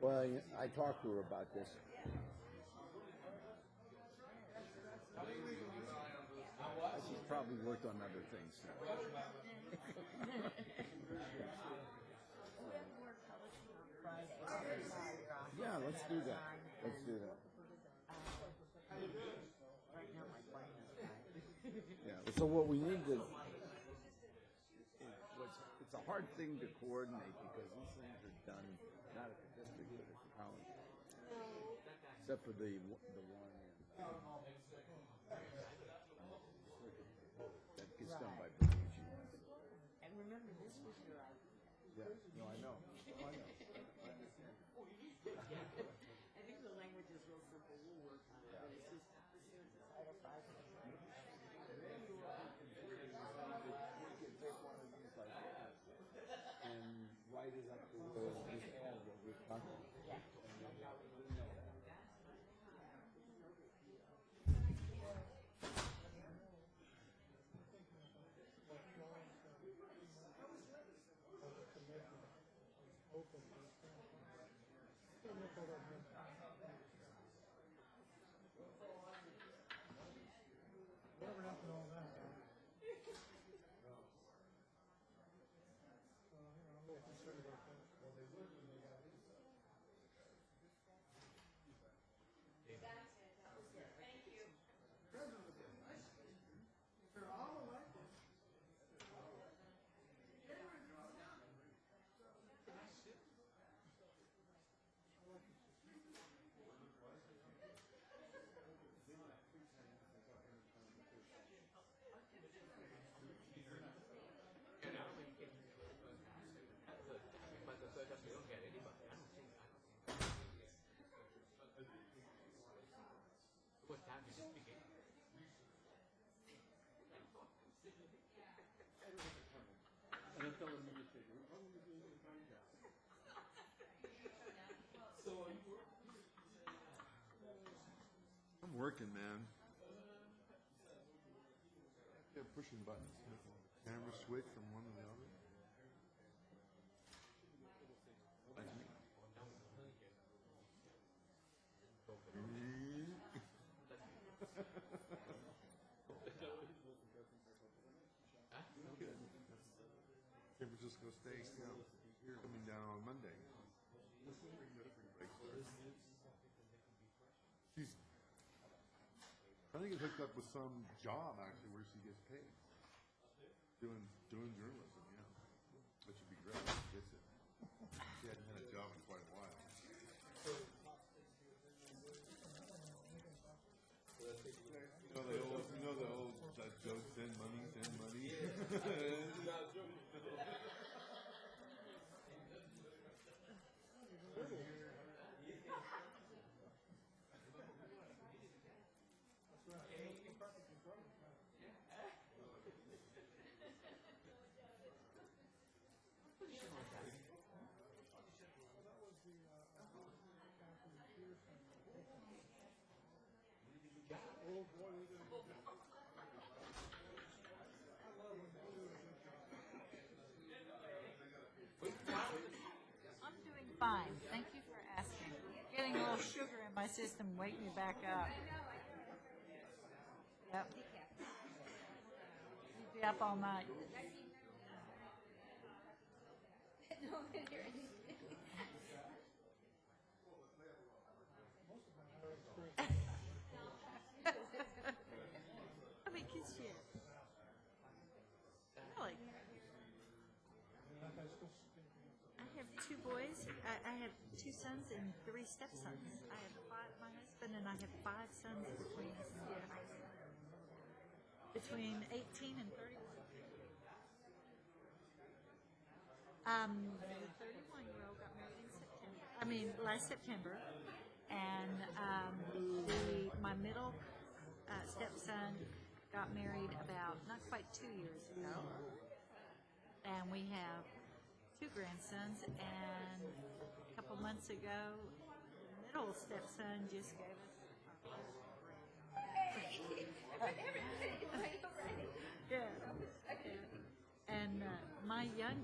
Well, you- I talked to her about this. She's probably worked on other things now. We have more publishing on Friday. Live Yeah, let's do that. time Let's and, do that. uh, Right now, my wife is Yeah. So what we need to, it was- it's a hard thing to coordinate because these things are done not at the district but at the college. Except for the, w- the one in. uh, That gets done by British. And remember, this was your idea. Yeah, no, I know. Oh, I know. I understand. I think the language is real simple, we'll work on it, but it's just, this is all five of us. And write it up to where we have what we're talking about. Whatever happened to all that? Well, you know, I'm a little concerned about that. Well, they would when they got these. I'm working, man. Yeah, pushing buttons. Camera switch from one to the other. San Francisco State, yeah. You're coming down on Monday. She's I think it hooked up with some job actually where she gets paid. Doing doing journalism, yeah. Which would be great if she gets it. She hadn't had a job in quite a while. You know the old you know the old that joke send money, send money. I'm doing fine, thank you for asking. Getting a little sugar in my system, wake me back up. Yep. You'd Be up all night. How many kids do you have? Really? I have two boys. I, I have two sons and three stepsons. I have five, my husband and I have five sons between us. Yeah. Between 18 and 31. Um, the 31 year old got married in September. I mean, last September. And um, the, my middle uh, stepson got married about not quite two years ago. And we have two grandsons, and a couple months ago, the middle stepson just gave us. our first grand. Yeah. And uh, my young